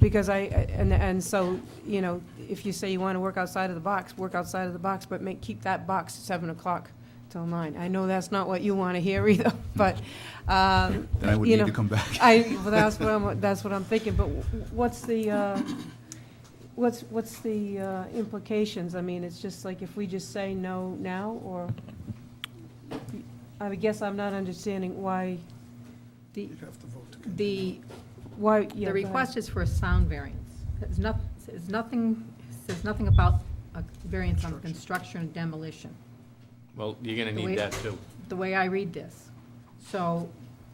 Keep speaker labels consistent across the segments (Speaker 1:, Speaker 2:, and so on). Speaker 1: Because I, and, and so, you know, if you say you want to work outside of the box, work outside of the box, but make, keep that box seven o'clock till nine. I know that's not what you want to hear either, but, um,
Speaker 2: Then I would
Speaker 1: you
Speaker 2: need to
Speaker 1: know,
Speaker 2: come back.
Speaker 1: I, well, that's what I'm, that's what I'm thinking, but wh- what's the, uh, what's, what's the uh, implications? I mean, it's just like if we just say no now, or, I guess I'm not understanding why the, the, why, yeah. go
Speaker 3: The
Speaker 1: ahead.
Speaker 3: request is for a sound variance. It's not, it's nothing, says nothing about a variance on construction and demolition,
Speaker 4: Well, you're gonna
Speaker 3: Wait.
Speaker 4: need that too.
Speaker 3: the way I read this. So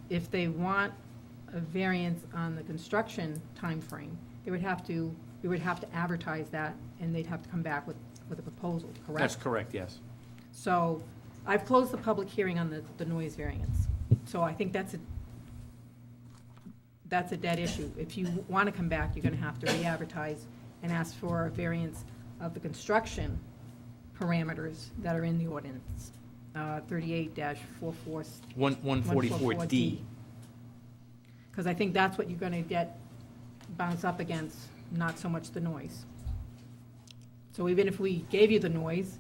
Speaker 3: if they want a variance on the construction timeframe, they would have to, we would have to advertise that, and they'd have to come back with, with a proposal,
Speaker 4: That's
Speaker 3: correct?
Speaker 4: correct, yes.
Speaker 3: So I've closed the public hearing on the, the noise variance. So I think that's a, that's a dead issue. If you want to come back, you're going to have to re-advertise and ask for a variance of the construction parameters that are in the ordinance, uh, thirty-eight dash four-four,
Speaker 4: One, one forty-four D.
Speaker 3: Because I think that's what you're going to get bounced up against, not so much the noise. So even if we gave you the noise,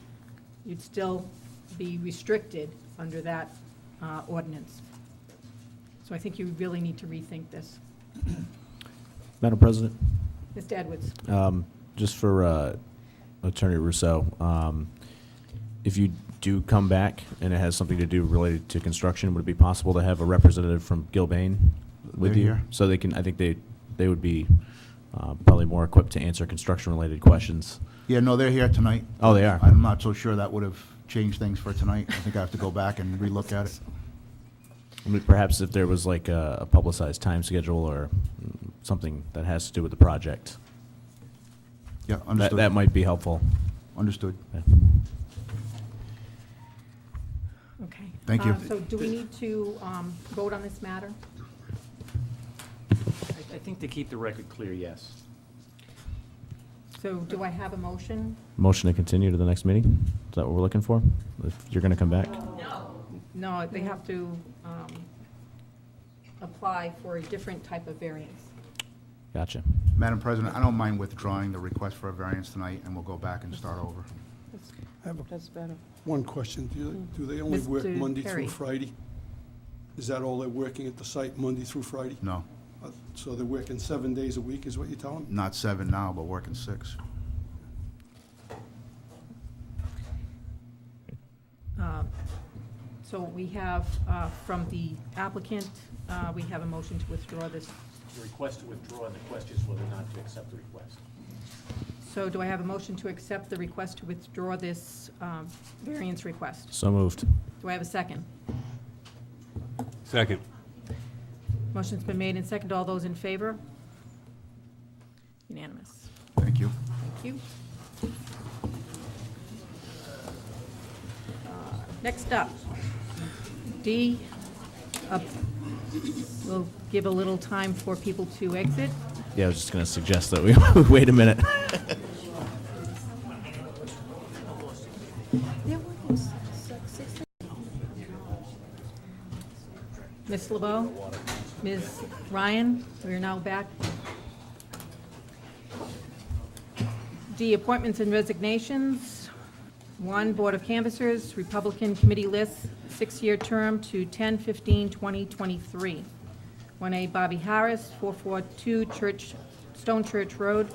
Speaker 3: you'd still be restricted under that uh, ordinance. So I think you really need to rethink this.
Speaker 5: Madam President,
Speaker 3: Mr. Edwards?
Speaker 5: um, just for uh, Attorney Rousseau, um, if you do come back and it has something to do related to construction, would it be possible to have a representative from Gilbane with
Speaker 2: They're
Speaker 5: you?
Speaker 2: here.
Speaker 5: So they can, I think they, they would be uh, probably more equipped to answer construction-related questions.
Speaker 2: Yeah, no, they're here tonight.
Speaker 5: Oh, they are?
Speaker 2: I'm not so sure that would have changed things for tonight. I think I have to go back and relook at it.
Speaker 5: I mean, Perhaps if there was like a a publicized time schedule or mm, something that has to do with the project,
Speaker 2: Yeah,
Speaker 5: that,
Speaker 2: understood.
Speaker 5: that might be helpful.
Speaker 2: Understood.
Speaker 5: Yeah.
Speaker 3: Okay.
Speaker 2: Thank you.
Speaker 3: Uh, So do we need to um, vote on this matter?
Speaker 4: I I think to keep the record clear, yes.
Speaker 3: So do I have a motion?
Speaker 5: Motion to continue to the next meeting? Is that what we're looking for? If you're going to come back?
Speaker 3: No, they have to um, apply for a different type of variance.
Speaker 5: Gotcha.
Speaker 2: Madam President, I don't mind withdrawing the request for a variance tonight, and we'll go back and start over.
Speaker 1: That's-
Speaker 6: I have a-
Speaker 1: That's better.
Speaker 6: one question. Do they- do they only work
Speaker 3: Mr.
Speaker 6: Monday
Speaker 3: Perry.
Speaker 6: through Friday? Is that all they're working at the site, Monday through Friday?
Speaker 2: No,
Speaker 6: Uh, So they're working seven days a week, is what you're telling me?
Speaker 2: not seven now, but working six.
Speaker 3: Um, So we have, uh, from the applicant, uh, we have a motion to withdraw this.
Speaker 4: The request to withdraw, and the question is whether or not to accept the request.
Speaker 3: So do I have a motion to accept the request to withdraw this um, variance request?
Speaker 5: So moved.
Speaker 3: Do I have a second?
Speaker 7: Second.
Speaker 3: Motion's been made and seconded. All those in favor? Unanimous.
Speaker 2: Thank you.
Speaker 3: Thank you. Uh, Next up, D, up- we'll give a little time for people to exit.
Speaker 5: Yeah, I was just going to suggest that we wait a minute.
Speaker 3: Ms. LeBeau, Ms. Ryan, we are now back. D, appointments and resignations. One, Board of Canvassers, Republican Committee List, six-year term to 10/15/2023. 1A Bobby Harris, 442 Church, Stone Church Road,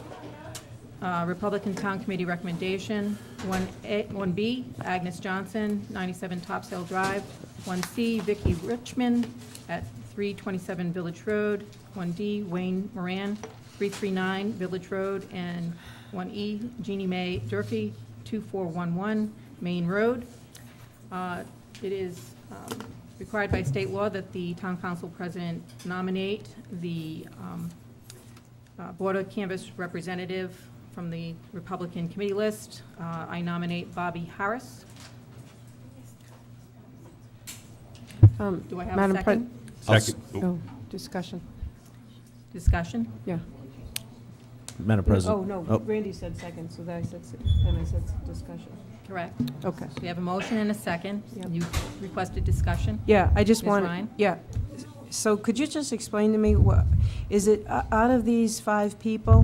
Speaker 3: uh, Republican Town Committee recommendation. 1A, 1B, Agnes Johnson, 97 Topsail Drive. 1C, Vicky Richmond at 327 Village Road. 1D, Wayne Moran, 339 Village Road. And 1E, Jeannie Mae Durfee, 2411 Main Road. Uh, It is um, required by state law that the town council president nominate the um, uh, Board of Canvas representative from the Republican committee list. Uh, I nominate Bobby Harris.
Speaker 1: Um,
Speaker 3: Do I have a
Speaker 1: Madam Pre-
Speaker 3: second?
Speaker 7: Second. Oh,
Speaker 1: Oh, discussion,
Speaker 3: Discussion?
Speaker 1: yeah.
Speaker 5: Madam
Speaker 1: Oh,
Speaker 5: President.
Speaker 1: no, Randy said second, so then I said, se- then I said s- discussion.
Speaker 3: Correct.
Speaker 1: Okay.
Speaker 3: So we have a motion and a second.
Speaker 1: Yep.
Speaker 3: You requested discussion?
Speaker 1: Yeah, I just
Speaker 3: Ms.
Speaker 1: want,
Speaker 3: Ryan?
Speaker 1: yeah. S- So could you just explain to me, what, is it, uh, out of these five people,